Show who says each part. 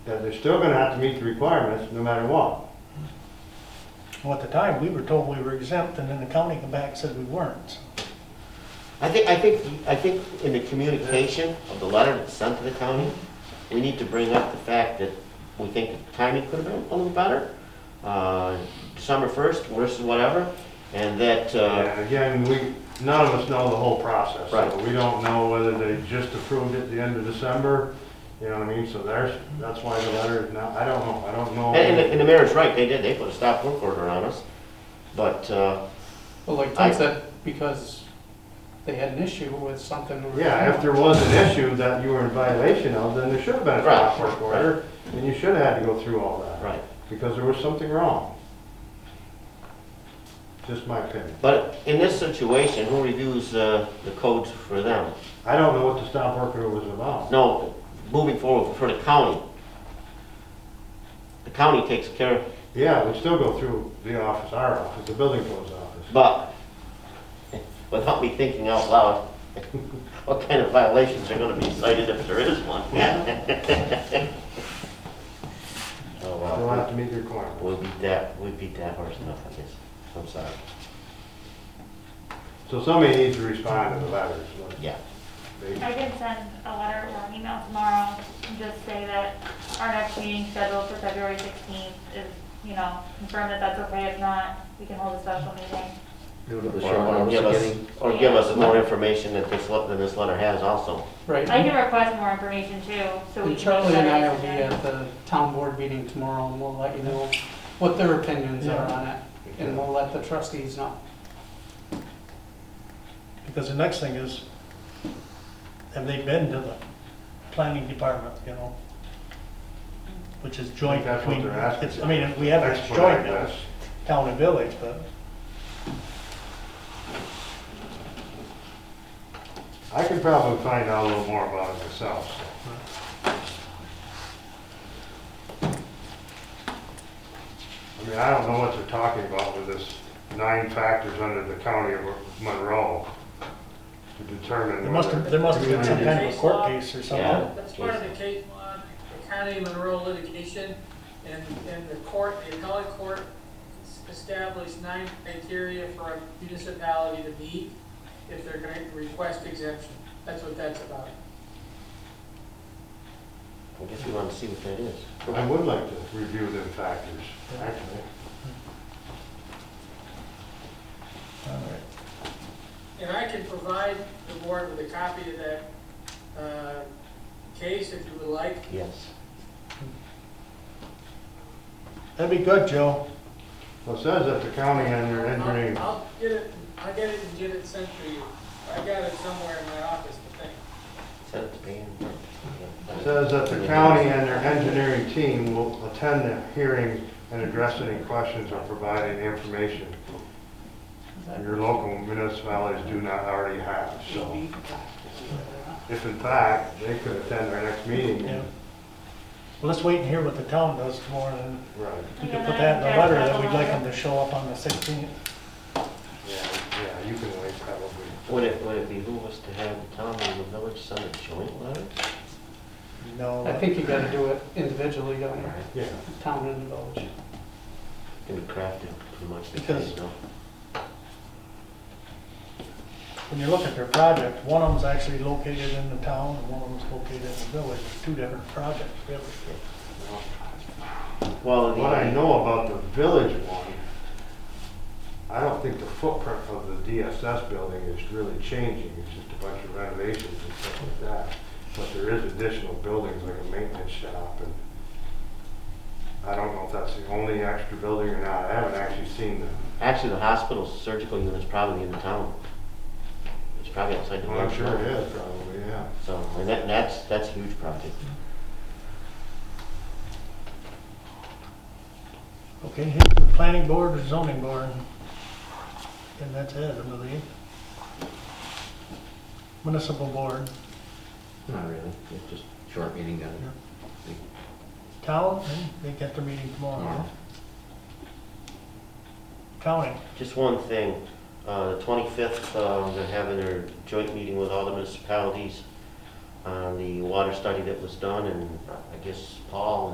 Speaker 1: Because they're still gonna have to meet the requirements no matter what.
Speaker 2: Well, at the time, we were told we were exempt, and then the county came back and said we weren't.
Speaker 3: I think, I think, I think in the communication of the letter that's sent to the county, we need to bring up the fact that we think the timing could have been a little better. uh, December 1st versus whatever, and that, uh,
Speaker 1: And again, we, none of us know the whole process. so
Speaker 3: Right.
Speaker 1: We don't know whether they just approved it the end of December, you know what I mean? So there's, that's why the letter is not, I don't know, I don't know.
Speaker 3: and- and the- and the mayor's right, they did, they put a stop work order on us. But, uh,
Speaker 4: Well, like
Speaker 3: I-
Speaker 4: Ted said, because they had an issue with something. we were
Speaker 1: Yeah, if
Speaker 4: doing.
Speaker 1: there was an issue that you were in violation of, then there should have been a
Speaker 3: Right.
Speaker 1: stop work order, and you should have had to go through all that.
Speaker 3: right,
Speaker 1: Because there was something wrong. Just my opinion.
Speaker 3: but in this situation, who reviews uh, the codes for them?
Speaker 1: I don't know what the stop work order was about.
Speaker 3: No, moving forward for the county. The county takes care of
Speaker 1: Yeah, we'd still go through the office, our office, the building code's office.
Speaker 3: But without me thinking out loud, what kind of violations are gonna be cited if there is one? Oh,
Speaker 1: They'll have
Speaker 3: wow.
Speaker 1: to meet the requirements.
Speaker 3: We beat that, we beat that horse enough, I guess. I'm sorry.
Speaker 1: So somebody needs to respond to the letters. like,
Speaker 3: Yeah.
Speaker 1: they-
Speaker 5: I can send a letter or an email tomorrow and just say that our next meeting scheduled for February 16th is, you know, confirm that that's okay. If not, we can hold a special meeting.
Speaker 3: Or- Or give us, or give us more information that this, le- than this letter has also.
Speaker 5: I
Speaker 4: Right.
Speaker 5: can request more information too, so we
Speaker 4: And
Speaker 5: can.
Speaker 4: Charlie and I will be uh,
Speaker 5: Yeah.
Speaker 4: at the town board meeting tomorrow, and we'll let you know what their opinions are on it, and we'll let the trustees know.
Speaker 2: Because the next thing is, have they been to the planning department, you know? Which is joint
Speaker 1: That's what
Speaker 2: between,
Speaker 1: they're asking.
Speaker 2: it's, I mean, we have
Speaker 1: That's
Speaker 2: a
Speaker 1: what I
Speaker 2: joint now,
Speaker 1: guess.
Speaker 2: town and village, but
Speaker 1: I can probably find out a little more about it myself, so. I mean, I don't know what they're talking about with this nine factors under the county of Monroe to determine.
Speaker 2: there must have, there must have been some kind of a court case or
Speaker 3: Yeah.
Speaker 2: something.
Speaker 6: That's part of the case on the county of Monroe litigation, and, and the court, the appellate court established nine criteria for a municipality to meet if they're going to request exemption. That's what that's about.
Speaker 3: I guess we wanna see what that is.
Speaker 1: I would like to review them factors, actually.
Speaker 2: All right.
Speaker 6: And I can provide the board with a copy of that, uh, case if you would like.
Speaker 3: Yes.
Speaker 2: That'd be good, Joe.
Speaker 1: Well, it says that the county and their engineering,
Speaker 6: I'll I'll get it, I'll get it and get it sent to you. I got it somewhere in my office, I think.
Speaker 3: Set up the band.
Speaker 1: it says that the county and their engineering team will attend the hearing and address any questions or provide any information your local municipalities do not already have, so. If in fact, they could attend our next meeting.
Speaker 2: Yeah. Well, let's wait and hear what the town does tomorrow, and
Speaker 1: Right,
Speaker 2: we
Speaker 5: Yeah,
Speaker 2: can put that in the letter that
Speaker 5: that's
Speaker 2: we'd like them
Speaker 5: a
Speaker 2: to show up on the sixteenth.
Speaker 1: yeah, yeah, you can wait probably.
Speaker 3: Would it, would it behoove us to have the town and the village send a joint letter?
Speaker 2: No.
Speaker 4: I think you gotta do it individually, don't you?
Speaker 1: Yeah,
Speaker 4: Town and village.
Speaker 3: Can be crafted pretty much.
Speaker 2: Because-
Speaker 3: no?
Speaker 2: when you look at their project, one of them's actually located in the town, and one of them's located in the village, two different projects, really.
Speaker 3: Well,
Speaker 1: what I
Speaker 3: the,
Speaker 1: know about the village one, I don't think the footprint of the DSS building is really changing, it's just a bunch of renovations and stuff like that. But there is additional buildings like a maintenance shop and I don't know if that's the only extra building or not, I haven't actually seen the
Speaker 3: actually, the hospital's surgical unit's probably in the town. It's probably outside the
Speaker 1: Well, I'm
Speaker 3: village.
Speaker 1: sure it is probably, yeah.
Speaker 3: So, and that, that's, that's a huge project.
Speaker 2: Okay, here's the planning board or zoning board, and that's it, I believe. Municipal board,
Speaker 3: Not really, it's just
Speaker 7: Short meeting down
Speaker 2: Yeah. town, and they get their meeting tomorrow.
Speaker 7: Tomorrow.
Speaker 2: County,
Speaker 3: Just one thing, uh, the twenty-fifth, um, they're having their joint meeting with all the municipalities on the water study that was done, and I guess Paul